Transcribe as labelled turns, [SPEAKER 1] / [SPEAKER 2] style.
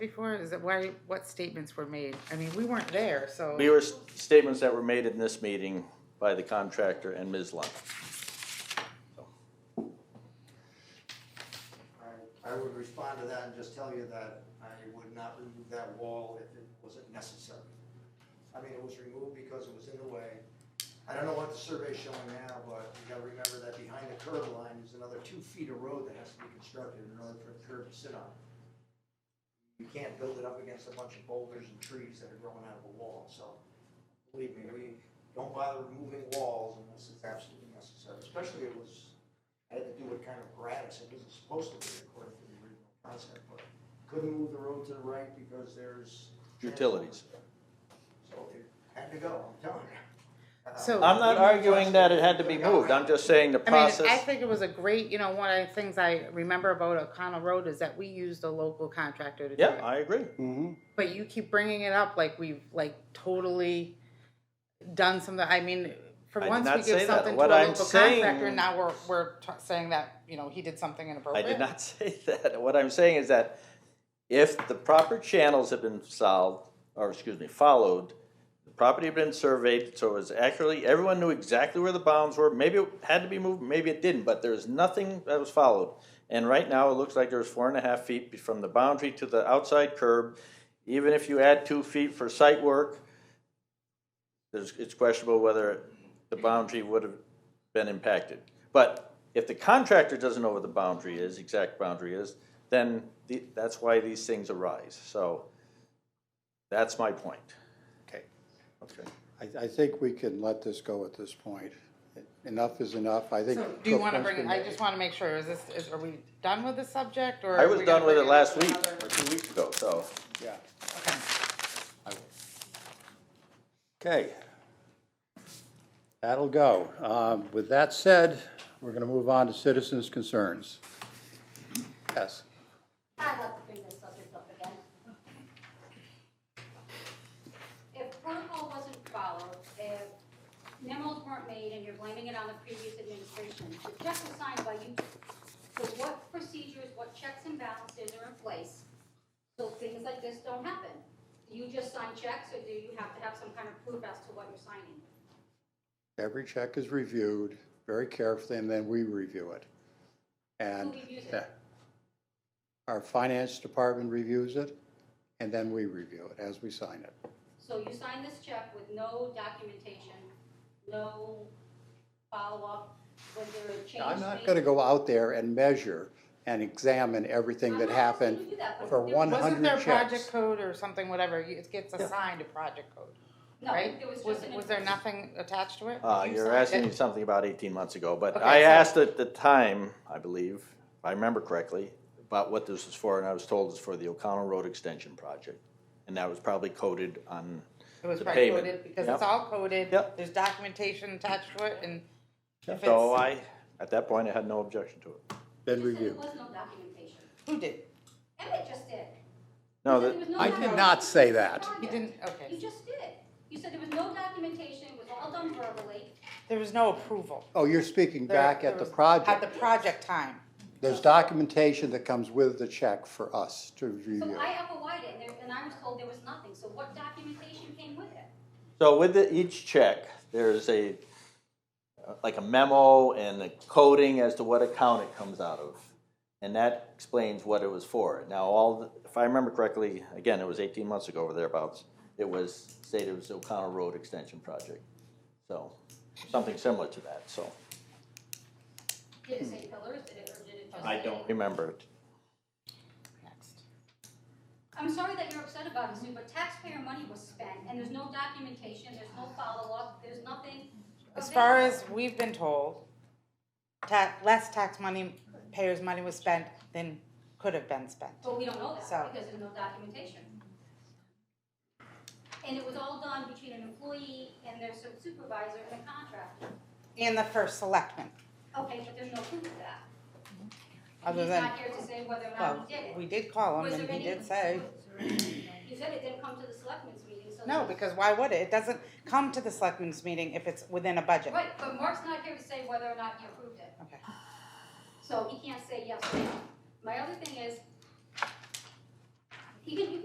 [SPEAKER 1] before? Is it why, what statements were made? I mean, we weren't there, so.
[SPEAKER 2] We were, s- statements that were made in this meeting by the contractor and Ms. Lund.
[SPEAKER 3] I, I would respond to that and just tell you that I would not remove that wall if it wasn't necessary. I mean, it was removed because it was in the way. I don't know what the survey's showing now, but you gotta remember that behind the curb line is another two feet of road that has to be constructed in order for the curb to sit on. You can't build it up against a bunch of boulders and trees that are growing out of a wall, so believe me, we don't bother removing walls unless it's absolutely necessary, especially it was I had to do it kind of gratis, it wasn't supposed to be according to the original concept, but couldn't move the road to the right because there's.
[SPEAKER 2] Utilities.
[SPEAKER 3] So it had to go, I'm telling you.
[SPEAKER 1] So-
[SPEAKER 2] I'm not arguing that it had to be moved, I'm just saying the
[SPEAKER 1] I mean, I
[SPEAKER 2] process,
[SPEAKER 1] think it was a great, you know, one of the things I remember about O'Connell Road is that we used a local contractor to do
[SPEAKER 2] yeah,
[SPEAKER 1] it.
[SPEAKER 2] I agree.
[SPEAKER 1] But you keep bringing it up like we've like totally done something, I mean, for
[SPEAKER 2] I did
[SPEAKER 1] once
[SPEAKER 2] not
[SPEAKER 1] we
[SPEAKER 2] say
[SPEAKER 1] give
[SPEAKER 2] that.
[SPEAKER 1] something to a
[SPEAKER 2] What I'm
[SPEAKER 1] local contractor,
[SPEAKER 2] saying-
[SPEAKER 1] now we're, we're t- saying that, you know, he did something
[SPEAKER 2] I
[SPEAKER 1] inappropriate.
[SPEAKER 2] did not say that. What I'm saying is that if the proper channels had been solved, or excuse me, followed, the property had been surveyed, so it was accurately, everyone knew exactly where the bounds were. Maybe it had to be moved, maybe it didn't, but there's nothing that was followed. And right now, it looks like there's four and a half feet from the boundary to the outside curb. Even if you add two feet for site work, there's, it's questionable whether the boundary would have been impacted. But if the contractor doesn't know what the boundary is, exact boundary is, then the, that's why these things arise. So that's my point.
[SPEAKER 4] Okay.
[SPEAKER 2] Okay.
[SPEAKER 5] I, I think we can let this go at this point. Enough is enough, I think.
[SPEAKER 1] So do you wanna
[SPEAKER 5] Cookman's
[SPEAKER 1] bring,
[SPEAKER 5] been-
[SPEAKER 1] I just wanna make sure, is this, is, are we done with the subject or?
[SPEAKER 2] I
[SPEAKER 1] are
[SPEAKER 2] was
[SPEAKER 1] we gonna
[SPEAKER 2] done with
[SPEAKER 1] bring
[SPEAKER 2] it last
[SPEAKER 1] up
[SPEAKER 2] week,
[SPEAKER 1] another-
[SPEAKER 2] or two weeks ago, so.
[SPEAKER 5] Yeah.
[SPEAKER 1] Okay.
[SPEAKER 5] Okay. That'll go. Um, with that said, we're gonna move on to citizens' concerns. Yes.
[SPEAKER 6] I'd like to bring this subject up again. If protocol wasn't followed, if memos weren't made and you're blaming it on the previous administration, the check was signed by you. So what procedures, what checks and balances are in place so things like this don't happen? Do you just sign checks or do you have to have some kind of proof as to what you're signing?
[SPEAKER 5] Every check is reviewed very carefully, and then we review it. And.
[SPEAKER 6] Who reviews it?
[SPEAKER 5] yeah. Our finance department reviews it, and then we review it as we sign it.
[SPEAKER 6] So you sign this check with no documentation, no follow-up, was there a change?
[SPEAKER 5] I'm not
[SPEAKER 6] made?
[SPEAKER 5] gonna go out there and measure and examine everything that
[SPEAKER 6] I'm not asking you
[SPEAKER 5] happened
[SPEAKER 6] to do that, but
[SPEAKER 5] for
[SPEAKER 6] there-
[SPEAKER 5] one
[SPEAKER 1] Wasn't there
[SPEAKER 5] hundred
[SPEAKER 1] project
[SPEAKER 5] checks.
[SPEAKER 1] code or something, whatever, you- it gets assigned a project code,
[SPEAKER 6] No,
[SPEAKER 1] right?
[SPEAKER 6] there was
[SPEAKER 1] Was,
[SPEAKER 6] just an.
[SPEAKER 1] was there nothing attached to it?
[SPEAKER 2] Uh,
[SPEAKER 1] You
[SPEAKER 2] you're
[SPEAKER 1] signed
[SPEAKER 2] asking
[SPEAKER 1] it.
[SPEAKER 2] me something about eighteen months ago, but
[SPEAKER 1] Okay,
[SPEAKER 2] I
[SPEAKER 1] so-
[SPEAKER 2] asked at the time, I believe, if I remember correctly, about what this was for, and I was told it's for the O'Connell Road Extension Project. And that was probably coded on
[SPEAKER 1] It was
[SPEAKER 2] the
[SPEAKER 1] probably
[SPEAKER 2] payment.
[SPEAKER 1] coded, because
[SPEAKER 2] Yep.
[SPEAKER 1] it's all coded,
[SPEAKER 2] Yep.
[SPEAKER 1] there's documentation attached to it, and if
[SPEAKER 2] So
[SPEAKER 1] it's,
[SPEAKER 2] I, at that point, I had no objection to it.
[SPEAKER 5] Been
[SPEAKER 6] You said there
[SPEAKER 5] reviewed.
[SPEAKER 6] was no documentation.
[SPEAKER 1] who did?
[SPEAKER 6] Emmett just did.
[SPEAKER 2] No,
[SPEAKER 6] You said
[SPEAKER 2] that,
[SPEAKER 6] there was no
[SPEAKER 5] I did
[SPEAKER 6] documentation
[SPEAKER 5] not say
[SPEAKER 6] of the
[SPEAKER 5] that.
[SPEAKER 6] project.
[SPEAKER 1] You didn't, okay,
[SPEAKER 6] You just did. You said there was no documentation, it was all done verbally.
[SPEAKER 1] there was no approval.
[SPEAKER 5] Oh, you're speaking
[SPEAKER 1] There-
[SPEAKER 5] back
[SPEAKER 1] there
[SPEAKER 5] at the
[SPEAKER 1] was- At
[SPEAKER 5] project.
[SPEAKER 1] the project time,
[SPEAKER 5] There's documentation that comes with the check for us to
[SPEAKER 6] So
[SPEAKER 5] review.
[SPEAKER 6] I FOI'd it, and there- and I was told there was nothing, so what documentation came with it?
[SPEAKER 2] So with the, each check, there's a, like a memo and a coding as to what account it comes out of. And that explains what it was for. Now, all, the- if I remember correctly, again, it was eighteen months ago or thereabouts, it was stated it was the O'Connell Road Extension Project. So, something similar to that, so.
[SPEAKER 6] Did it say pillars, did it, or did it just
[SPEAKER 2] I
[SPEAKER 6] say-
[SPEAKER 2] don't remember it.
[SPEAKER 1] next.
[SPEAKER 6] Oh, I'm sorry that you're upset about it, Sue, but taxpayer money was spent, and there's no documentation, there's no follow-up, there's nothing.
[SPEAKER 1] As far
[SPEAKER 6] available.
[SPEAKER 1] as we've been told, ta, less tax money, payers' money was spent than could have been spent.
[SPEAKER 6] But we don't know that
[SPEAKER 1] So-
[SPEAKER 6] because there's no documentation. And it was all done between an employee and their su- supervisor and a contractor.
[SPEAKER 1] And the first selectman,
[SPEAKER 6] Okay, but there's no proof of that. And
[SPEAKER 1] Other
[SPEAKER 6] he's
[SPEAKER 1] than-
[SPEAKER 6] not here to say whether or
[SPEAKER 1] well,
[SPEAKER 6] not he did it.
[SPEAKER 1] we did call
[SPEAKER 6] Was
[SPEAKER 1] him and
[SPEAKER 6] there
[SPEAKER 1] he
[SPEAKER 6] any-
[SPEAKER 1] did say.
[SPEAKER 6] You said it didn't come to the selectmen's meeting, so.
[SPEAKER 1] No,
[SPEAKER 6] there's-
[SPEAKER 1] because why would it? It doesn't come to the selectmen's meeting if it's within a budget.
[SPEAKER 6] Right, but Mark's not here to say whether or not he approved it.
[SPEAKER 1] Okay.
[SPEAKER 6] So he can't say yes or no. My other thing is, even if